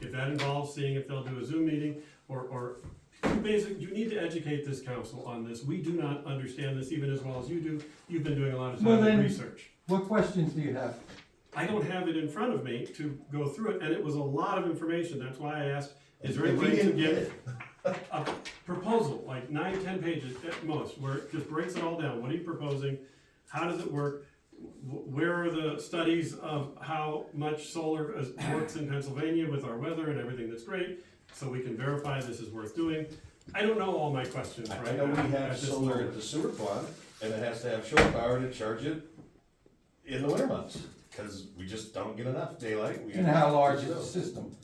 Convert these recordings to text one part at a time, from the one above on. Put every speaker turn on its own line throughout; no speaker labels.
If that involves seeing if they'll do a Zoom meeting or, or, you basic, you need to educate this council on this. We do not understand this even as well as you do. You've been doing a lot of
Well,
time and
then-
research.
What questions do you have?
I don't have it in front of me to go through it, and it was a lot of information. That's why I asked, is there any
And we
way to
didn't get
get
it.
a proposal, like nine, ten pages at most, where it just breaks it all down? What are you proposing? How does it work? Wh- Where are the studies of how much solar is- works in Pennsylvania with our weather and everything that's great? So we can verify this is worth doing. I don't know all my questions
I
right
I know
now
we
at
have
this
solar
moment.
at the sewer plant, and it has to have shore power to charge it in the winter months, cause we just don't get enough daylight. We-
And how large is the system?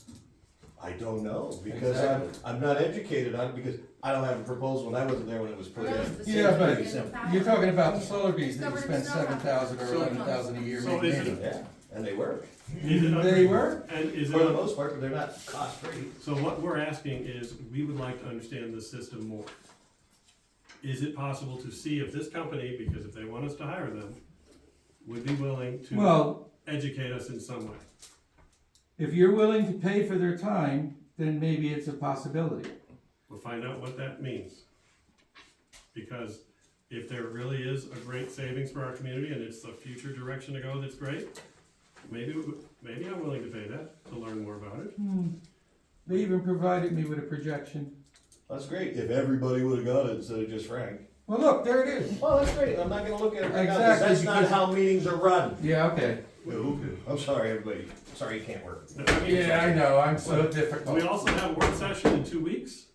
I don't know, because I'm,
Exactly.
I'm not educated on, it because I don't have a proposal, and I wasn't there when it was put
Well, that
in.
was the
Yeah,
same
but
thing in the
you're talking about the
power.
solar bees that you
Discovered
spend
it's not
seven thousand or
happening.
eleven thousand a year
So is it-
maintaining.
Yeah, and they work,
Is it under-
They were?
And is it?
for the most part, but they're not cost free.
So what we're asking is, we would like to understand the system more. Is it possible to see if this company, because if they want us to hire them, would be willing to
Well,
educate us in some way?
if you're willing to pay for their time, then maybe it's a possibility.
We'll find out what that means. Because if there really is a great savings for our community and it's the future direction to go that's great, maybe, maybe I'm willing to pay that to learn more about it.
Hmm. They even provided me with a projection.
That's great, if everybody would've got it instead of just Frank.
Well, look, there it is.
Well, that's great, I'm not gonna look at it right now, 'cause
Exactly,
that's not
because-
how meetings are run.
Yeah, okay.
I'm sorry, everybody, sorry it can't work.
I mean,
Yeah, I know, I'm so
We
difficult.
also have a work session in two weeks.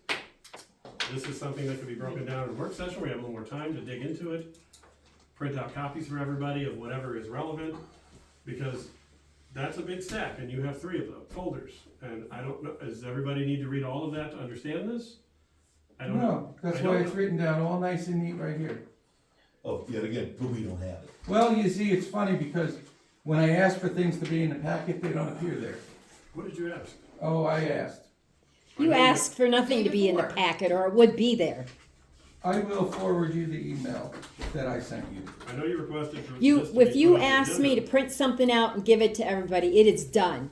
This is something that could be broken down in a work session, we have a little more time to dig into it. Print out copies for everybody of whatever is relevant, because that's a big stack, and you have three of them, folders. And I don't know, does everybody need to read all of that to understand this? I don't know.
No, that's
I
why
don't
it's
know.
written down all nice and neat right here.
Oh, yet again, but we don't have it.
Well, you see, it's funny because when I ask for things to be in the packet, they don't appear there.
What did you ask?
Oh, I asked.
You asked for nothing to be in the packet, or it would be there.
I will forward you the email that I sent you.
I know you requested for.
You,
this to
if
be
you
put on the
asked me to
agenda.
print something out and give it to everybody, it is done.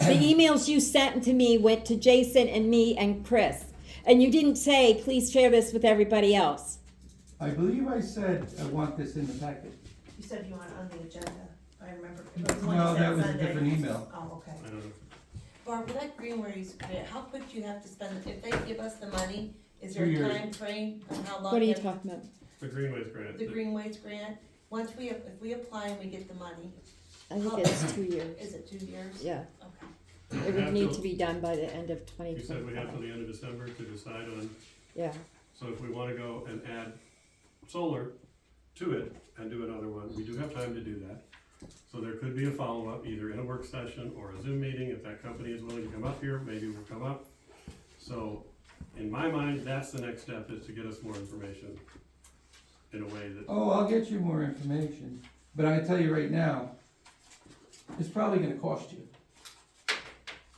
The emails you sent to me went to Jason and me and Chris, and you didn't say, please share this with everybody else.
I believe I said I want this in the packet.
You said you want it on the agenda, I remember. It was one you
No,
said
that was a
Sunday.
different email.
Oh, okay.
I don't know.
Barbara, that green where you put it, how quick do you have to spend, if they give us the money, is there
Two
a
years.
time frame on how long?
What are you
they-
talking about?
The Greenways grant.
The Greenways grant, once we, ap- if we apply and we get the money,
I think it's two years.
is it two years?
Yeah,
Okay.
it would need to be done by the end of twenty
You said we have till
twenty-five.
the end of December to decide on
Yeah,
So if we wanna go and add solar to it and do another one, we do have time to do that. So there could be a follow-up, either in a work session or a Zoom meeting, if that company is willing to come up here, maybe we'll come up. So, in my mind, that's the next step, is to get us more information in a way that,
Oh, I'll get you more information, but I'm gonna tell you right now, it's probably gonna cost you.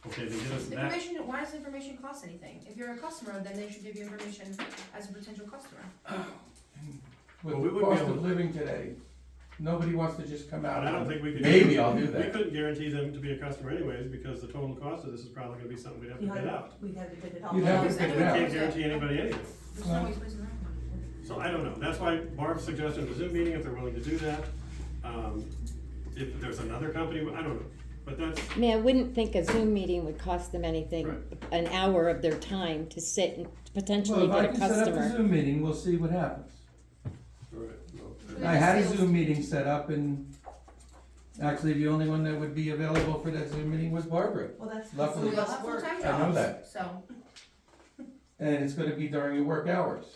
okay, then get us that,
Information, why does information cost anything? If you're a customer, then they should give you information as a potential customer.
Well, we
With
wouldn't
the
be
cost
able
of
to-
living today, nobody wants to just come out.
but I don't think we could.
Maybe I'll do
We
that.
couldn't guarantee them to be a customer anyways, because the total cost of this is probably gonna be something we'd have to
You had
pay
it-
out.
We had to bid it all.
You'd
out.
have to
We
figure it
can't
out.
guarantee anybody anything.
There's no ways losing that money.
So I don't know, that's why Barb suggested a Zoom meeting, if they're willing to do that. Um, If there's another company, I don't know, but that's,
I mean, I wouldn't think a Zoom meeting would cost them anything,
Right.
an hour of their time to sit and
Well,
potentially
if I
get a
can set up a
customer.
Zoom meeting, we'll see what happens.
all right, well,
I had a Zoom meeting set up and actually the only one that would be available for that Zoom meeting was Barbara.
Well, that's.
Luckily-
so
We all have
work.
full-time
I know that.
jobs, so.
And it's gonna be during your work hours.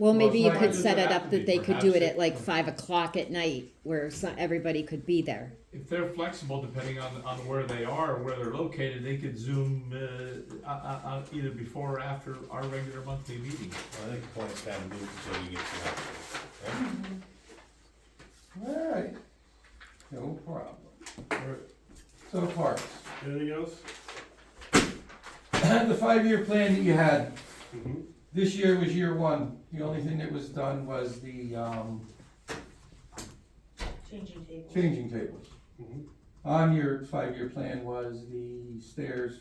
Well, maybe you
Well,
could
it's
set
not-
it up that they could do it at like five o'clock at night where so- everybody could be there.
if they're flexible depending on, on where they are or where they're located, they could zoom uh, on, on either before or after our regular monthly meeting.
I think the point's kind of moot until you get some help. right?
Alright, no problem.
all right.
So parks,
anything else?
the five-year plan that you had,
Mhm.
this year was year one. The only thing that was done was the, um,
Changing tables.
changing tables.
Mhm.
On your five-year plan was the stairs